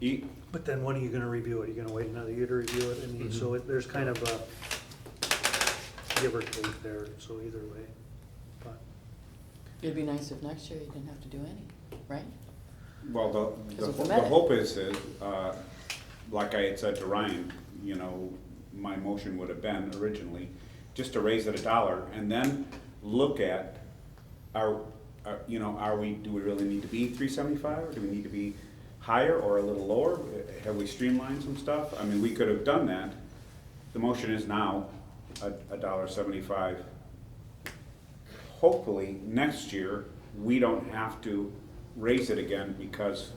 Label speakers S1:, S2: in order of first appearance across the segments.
S1: E-
S2: But then when are you gonna review it? Are you gonna wait another year to review it? I mean, so it- there's kind of a give or take there, so either way. But
S3: It'd be nice if next year you didn't have to do any, right?
S1: Well, the- the,
S3: Because of the
S1: the
S3: medic.
S1: hope is, is, uh, like I had said to Ryan, you know, my motion would have been originally, just to raise it a dollar, and then look at, are, are- you know, are we, do we really need to be three seventy-five, or do we need to be higher or a little lower? Have we streamlined some stuff? I mean, we could have done that. The motion is now a, a dollar seventy-five. Hopefully, next year, we don't have to raise it again because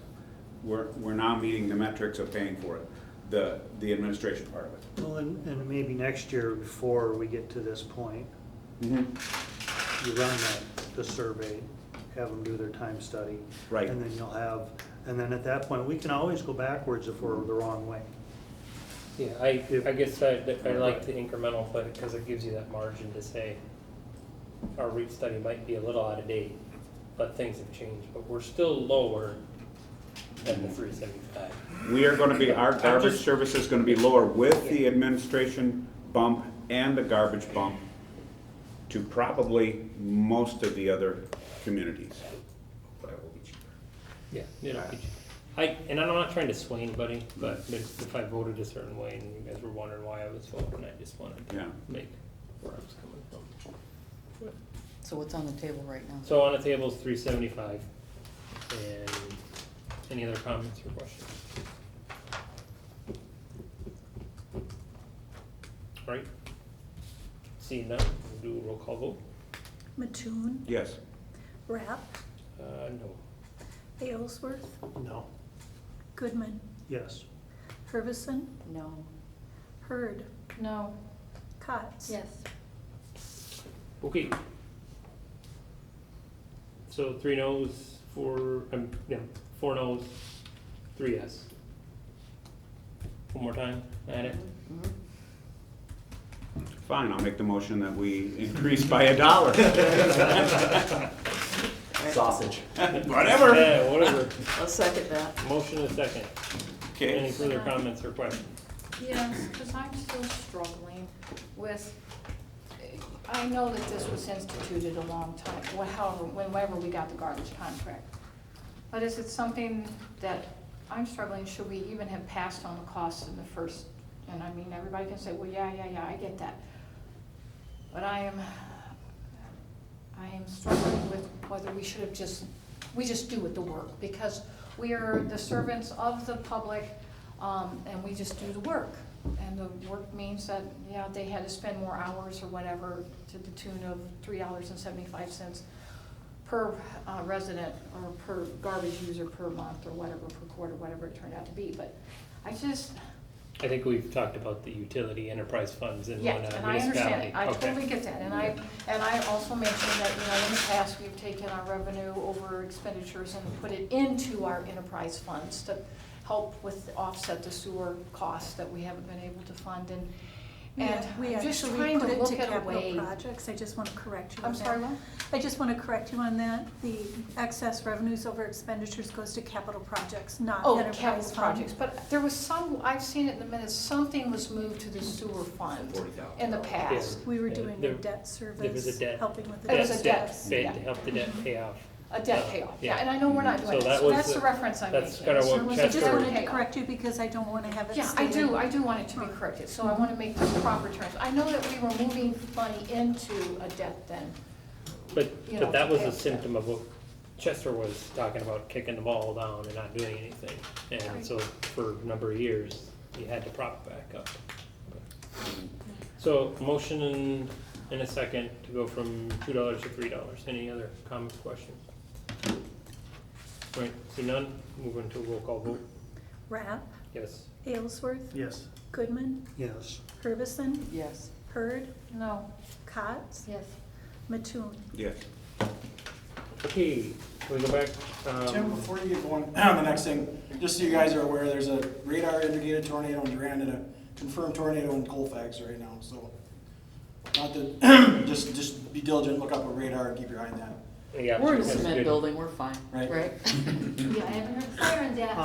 S1: we're, we're now meeting the metrics of paying for it, the, the administration part of it.
S2: Well, and, and maybe next year, before we get to this point, you run that, the survey, have them do their time study.
S1: Right.
S2: And then you'll have, and then at that point, we can always go backwards if we're the wrong way.
S4: Yeah, I, I guess I, I like the incremental, but, because it gives you that margin to say, our REIT study might be a little out of date, but things have changed, but we're still lower than the three seventy-five.
S1: We are gonna be, our
S4: I'm
S1: garbage
S4: just-
S1: service is gonna be lower with the administration bump and the garbage bump to probably most of the other communities. But it will be cheaper.
S4: Yeah. You know, I, and I'm not trying to sway anybody, but if if I voted a certain way and you guys were wondering why I was voting, I just wanted to
S1: Yeah.
S4: make where I was coming from.
S3: So what's on the table right now?
S4: So on the table is three seventy-five, and any other comments or questions? Right? Seeing none, we'll do a roll call vote,
S5: Mattoon,
S1: Yes.
S5: Rapp,
S4: uh, no,
S5: Aylesworth,
S2: No.
S5: Goodman,
S2: Yes.
S5: Hervison,
S3: No.
S5: Hurd,
S3: No.
S5: Cotts.
S4: okay. So three noes, four, um, no, four noes, three yes. One more time, add it,
S3: Mhm.
S1: Fine, I'll make the motion that we increase by a dollar.
S6: Sausage.
S1: Whatever.
S4: yeah, whatever,
S3: I'll second that.
S4: motion is second, any
S1: Okay.
S4: further comments or questions?
S7: Yes, because I'm still struggling with, I know that this was instituted a long time, wh- however, whenever we got the garbage contract. But is it something that I'm struggling, should we even have passed on the costs in the first? And I mean, everybody can say, well, yeah, yeah, yeah, I get that. But I am, I am struggling with whether we should have just, we just do with the work, because we are the servants of the public, um, and we just do the work. And the work means that, yeah, they had to spend more hours or whatever, to the tune of three dollars and seventy-five cents per uh, resident, or per garbage user per month, or whatever, per quarter, whatever it turned out to be, but I just,
S4: I think we've talked about the utility enterprise funds in
S7: Yeah,
S4: one uh,
S7: and I understand,
S4: municipality.
S7: it. I
S4: Okay.
S7: totally get that, and I, and I also mentioned that, you know, in the past, we've taken our revenue over expenditures and put it into our enterprise funds to help with, offset the sewer costs that we haven't been able to fund, and, and
S5: We
S7: I'm just
S5: actually
S7: trying
S5: put
S7: to
S5: it
S7: look
S5: to
S7: at a
S5: capital
S7: way.
S5: projects, I just want to correct you
S7: I'm
S5: on that.
S7: sorry, what?
S5: I just want to correct you on that, the excess revenues over expenditures goes to capital projects, not
S7: Oh,
S5: enterprise
S7: capital
S5: fund.
S7: projects, but there was some, I've seen it in the minutes, something was moved to the sewer fund
S6: Forty thousand.
S7: in the past,
S5: We were
S4: Yeah,
S5: doing
S4: there-
S5: a debt
S4: there was a
S5: service,
S4: debt-
S5: helping with the
S7: It
S5: debt
S7: was
S4: debt-
S7: a debt,
S5: service.
S4: Debt,
S7: yeah. Mm-hmm.
S4: to help the debt pay off.
S7: a debt
S4: Uh,
S7: payoff,
S4: yeah. Mm-hmm.
S7: yeah, and I know we're not doing
S4: So that
S7: that, so
S4: was
S7: that's
S4: the-
S7: the reference I'm making.
S4: that's kinda what
S7: So it was a
S5: I just
S4: Chester-
S7: debt
S5: wanted to
S7: payoff.
S5: correct you because I don't want to have it
S7: Yeah, I
S5: stated.
S7: do, I do want it to be corrected, so I want to make the proper terms. I know that we were moving money into a debt then.
S4: But,
S7: You
S4: but
S7: know,
S4: that was a
S7: yeah.
S4: symptom of what Chester was talking about, kicking the ball down and not doing anything. And
S7: Right.
S4: so for a number of years, you had to prop it back up. So motion in, in a second to go from two dollars to three dollars. Any other comments, questions? Right, see none, move into roll call vote.
S5: Rapp,
S4: Yes.
S5: Aylesworth,
S2: Yes.
S5: Goodman,
S2: Yes.
S5: Hervison,
S3: Yes.
S5: Hurd,
S7: No,
S5: Cotts,
S7: yes.
S5: Mattoon.
S1: Yes.
S4: Okay, can we go back? um,
S6: Tim, before you get going, the next thing, just so you guys are aware, there's a radar indicated tornado in Durant and a confirmed tornado in Colfax right now, so. Not that, just, just be diligent, look up a radar and keep your eye on that.
S4: Yeah,
S3: We're in a
S4: that's
S3: cement
S4: good.
S3: building, we're fine,
S6: Right.
S3: right?
S7: Yeah, I haven't heard fire on that.